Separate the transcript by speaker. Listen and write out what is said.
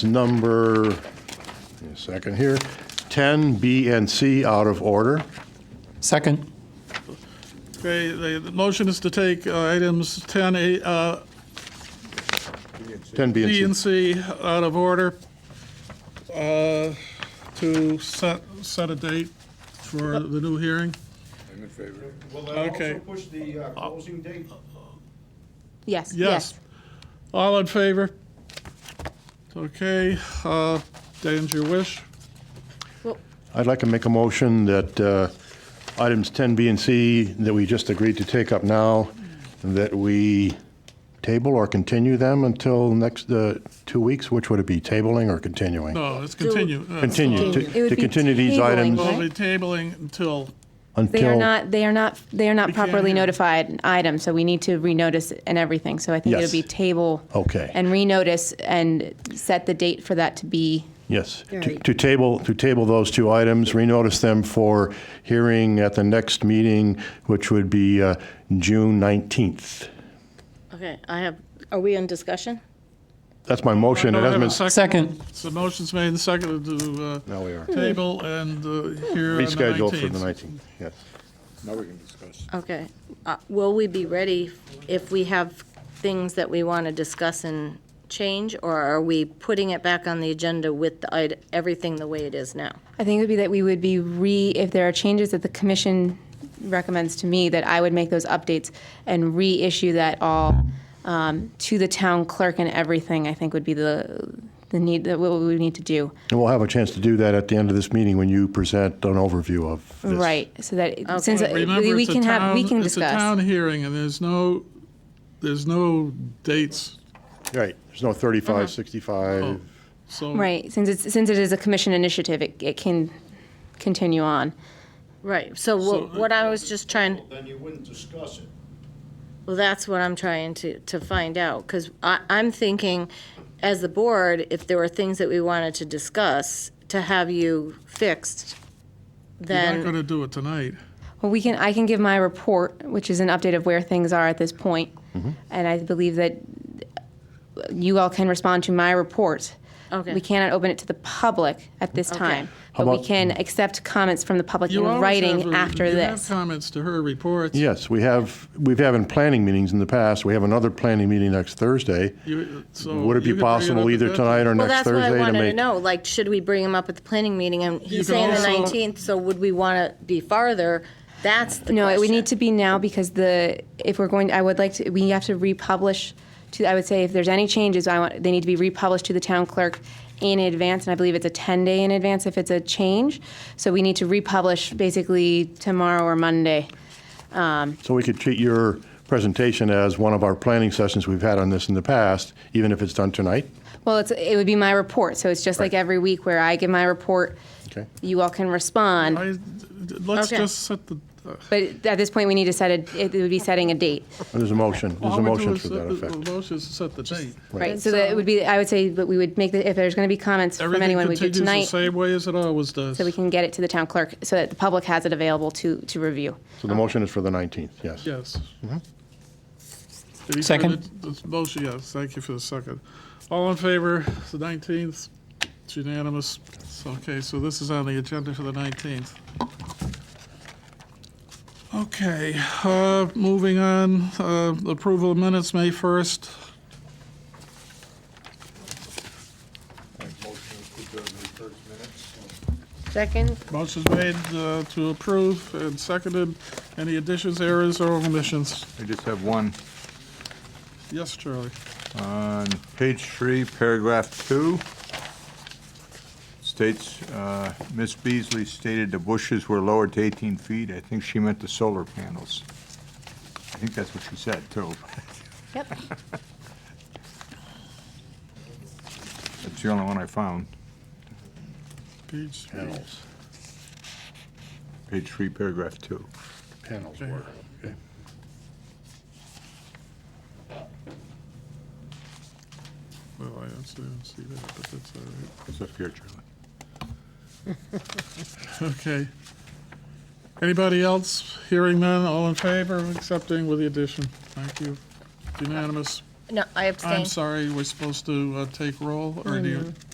Speaker 1: number, give me a second here, 10, B and C out of order.
Speaker 2: Second.
Speaker 3: Okay, the, the motion is to take uh, items 10, A- uh,
Speaker 1: 10 B
Speaker 3: D
Speaker 1: and
Speaker 3: and
Speaker 1: C.
Speaker 3: C out of order uh, to set, set a date for the new hearing.
Speaker 4: Will that
Speaker 3: Okay.
Speaker 4: also push the uh, closing date?
Speaker 3: Yes.
Speaker 5: Yes, yes.
Speaker 3: All in favor? Okay, uh, Dan's your wish.
Speaker 1: I'd like to make a motion that uh, items 10 B and C that we just agreed to take up now, that we table or continue them until next uh, two weeks, which would it be, tabling or continuing?
Speaker 3: No, let's continue. Uh,
Speaker 1: Continue,
Speaker 5: Continue. It
Speaker 1: to-
Speaker 5: would
Speaker 1: to
Speaker 5: be
Speaker 1: continue these
Speaker 5: tabling,
Speaker 1: items
Speaker 3: We'll be
Speaker 5: Right.
Speaker 3: tabling until,
Speaker 5: They are
Speaker 1: until,
Speaker 5: not, they are not, they are not
Speaker 3: can't
Speaker 5: properly
Speaker 3: hear.
Speaker 5: notified item, so we need to renotice and everything. So I think
Speaker 1: Yes.
Speaker 5: it'll be table.
Speaker 1: Okay.
Speaker 5: And renotice and set the date for that to be,
Speaker 1: yes, to-
Speaker 6: Right.
Speaker 1: to table, to table those two items, renotice them for hearing at the next meeting, which would be uh, June 19th.
Speaker 6: Okay, I have, are we in discussion?
Speaker 1: That's my motion, it
Speaker 3: Don't
Speaker 1: hasn't
Speaker 3: have
Speaker 1: been
Speaker 3: a second.
Speaker 2: Second.
Speaker 3: so motion's made and seconded to
Speaker 1: Now we are.
Speaker 3: uh, table and uh, here on the
Speaker 1: Rescheduled for the
Speaker 3: 19th.
Speaker 1: 19th, yes.
Speaker 6: Okay. Uh, Will we be ready if we have things that we want to discuss and change? Or are we putting it back on the agenda with the, ite- everything the way it is now?
Speaker 5: I think it would be that we would be re, if there are changes that the commission recommends to me, that I would make those updates and reissue that all um, to the town clerk and everything, I think would be the, the need, that what we would need to do.
Speaker 1: And we'll have a chance to do that at the end of this meeting when you present an overview of this.
Speaker 5: Right, so that, it- since uh,
Speaker 3: Remember,
Speaker 5: we we
Speaker 3: it's a
Speaker 5: can have, we
Speaker 3: town-
Speaker 5: can
Speaker 3: It's a town
Speaker 5: discuss.
Speaker 3: hearing, and there's no, there's no dates,
Speaker 1: Right, there's no
Speaker 6: Uh-huh.
Speaker 1: 35,
Speaker 3: Oh.
Speaker 1: 65.
Speaker 3: so.
Speaker 5: Right, since it's, since it is a commission initiative, it, it can continue on.
Speaker 6: Right, so what what I was just trying,
Speaker 4: Then you wouldn't discuss it.
Speaker 6: Well, that's what I'm trying to, to find out, because I, I'm thinking, as the board, if there were things that we wanted to discuss, to have you fixed,
Speaker 3: You're not going
Speaker 6: then,
Speaker 3: to do it tonight.
Speaker 5: Well, we can, I can give my report, which is an update of where things are at this point.
Speaker 3: Mm-hmm.
Speaker 5: And I believe that you all can respond to my report.
Speaker 6: okay.
Speaker 5: We cannot open it to the public at this time, but we
Speaker 1: about-
Speaker 5: can accept comments from the public in
Speaker 3: You always have
Speaker 5: writing
Speaker 3: a-
Speaker 5: after
Speaker 3: you have
Speaker 5: this.
Speaker 3: comments to her reports.
Speaker 1: Yes, we have, we've had in planning meetings in the past, we have another planning meeting next Thursday.
Speaker 3: You- so
Speaker 1: Would it be
Speaker 3: you could bring up
Speaker 1: possible
Speaker 3: at
Speaker 1: either
Speaker 3: that
Speaker 1: tonight or
Speaker 6: Well,
Speaker 1: next
Speaker 6: that's what I
Speaker 1: Thursday to
Speaker 6: wanted to
Speaker 1: make?
Speaker 6: know, like, should we bring him up at the planning meeting, and he's
Speaker 3: can
Speaker 6: saying the
Speaker 3: also-
Speaker 6: nineteenth, so would we want to be farther? That's the question.
Speaker 5: No, it would need to be now because the, if we're going, I would like to, we have to republish to, I would say if there's any changes, I want, they need to be republished to the town clerk in advance, and I believe it's a 10-day in advance if it's a change. So we need to republish basically tomorrow or Monday.
Speaker 1: So we could treat your presentation as one of our planning sessions we've had on this in the past, even if it's done tonight?
Speaker 5: Well, it's, it would be my report, so it's just like
Speaker 1: Right.
Speaker 5: every week where I give my report,
Speaker 1: Okay.
Speaker 5: you all can respond.
Speaker 3: I- Let's
Speaker 6: Okay.
Speaker 3: just set the, uh,
Speaker 5: But at this point, we need to set a, it would be setting a date,
Speaker 1: There's a motion, there's a
Speaker 3: all we do
Speaker 1: motion
Speaker 3: is
Speaker 1: to
Speaker 3: set
Speaker 1: that
Speaker 3: the-
Speaker 1: effect.
Speaker 3: The motion is to set the date.
Speaker 5: right? So that it would be, I would say, but we would make, the if there's going to be comments from
Speaker 3: Everything
Speaker 5: anyone, we'd do
Speaker 3: continues the
Speaker 5: tonight, so
Speaker 3: same way as it always does.
Speaker 5: we can get it to the town clerk, so that the public has it available to, to review.
Speaker 1: So the motion is for the 19th, yes.
Speaker 3: Yes. Did he
Speaker 2: Second.
Speaker 3: second this Motion, yes, thank you for the second. All in favor, it's the 19th, it's unanimous. It's Okay, so this is on the agenda for the 19th. Okay, uh, moving on, uh, approval of minutes, May 1st.
Speaker 6: Second,
Speaker 3: Motion's made uh, to approve and seconded. Any additions, errors, or omissions?
Speaker 7: I just have one.
Speaker 3: Yes, Charlie?
Speaker 7: On page three, paragraph two, states, uh, Ms. Beasley stated the bushes were lowered to 18 feet. I think she meant the solar panels. I think that's what she said, too.
Speaker 5: Yep.
Speaker 7: That's the only one I found,
Speaker 3: Page three.
Speaker 1: Panels,
Speaker 7: page three, paragraph two.
Speaker 1: panels were. okay.
Speaker 3: Well, I don't see don't see that, but that's all right.
Speaker 7: It's up here, Charlie.
Speaker 3: Okay. Anybody else? Hearing none, all in favor of accepting with the addition? Thank you. Unanimous.
Speaker 6: no, I abstain.
Speaker 3: I'm sorry, we're supposed to uh, take roll, or do you?